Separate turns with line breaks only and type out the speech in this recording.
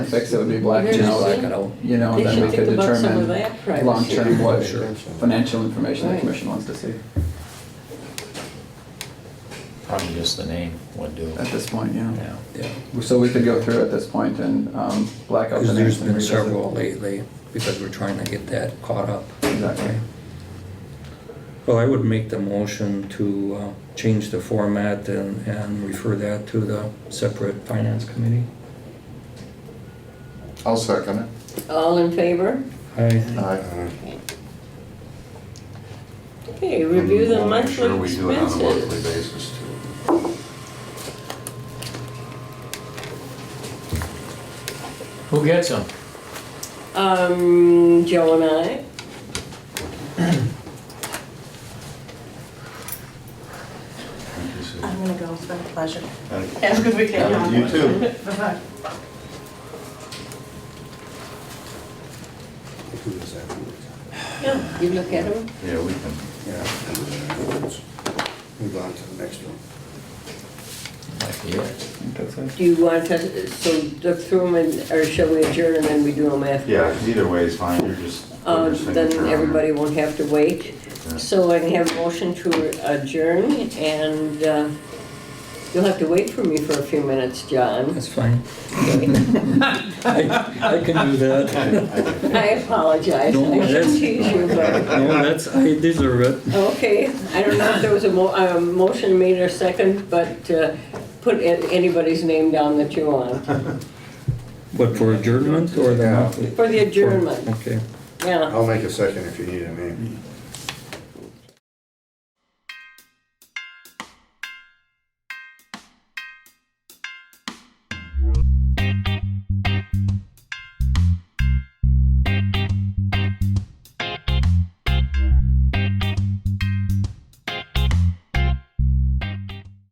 fix it would be blacked
Just
out,
black it out.
you know, and
They
then
should
we could
think about some of
determine
that privacy.
long-term what
Sure.
financial information the
Right.
commission wants to see
Probably just the name would do.
at this point, you know.
Yeah.
Yeah.
So we could go through at this point and um, black out the
Because
names
there's
and
been
revisit.
several lately, because we're trying to get that caught up.
Exactly.
Well, I would make the motion to uh, change the format and, and refer that to the separate finance committee.
I'll second it.
All in favor?
I,
Aye.
Okay, review the
We'll make
monthly
Sure, we do it on a monthly
expenses.
basis too.
Who gets them?
Um, Joe and I,
Thank you, Sue.
I'm gonna go, it's been a pleasure.
Thank you.
Have a good weekend.
Yeah, you too.
Bye-bye.
yeah, you look at them.
Yeah, we can.
Yeah. Move on to the next one.
Might be it.
I think that's it.
Do you want to, so look through them and, or shall we adjourn and then we do them after?
Yeah, 'cause either way is fine, you're just. put your
Uh, then
signature on it.
everybody won't have to wait.
Yeah.
So I can have a motion to adjourn and, uh, you'll have to wait for me for a few minutes, John.
that's fine. I I can do that.
I apologize.
No,
I
that's-
shouldn't tease you, but.
No, that's, I deserve it.
Okay, I don't know if there was a mo, a motion made or second, but uh, put a- anybody's name down that you want
But for adjournment or the
Yeah.
monthly?
for the adjournment,
Okay.
yeah.
I'll make a second if you need a name.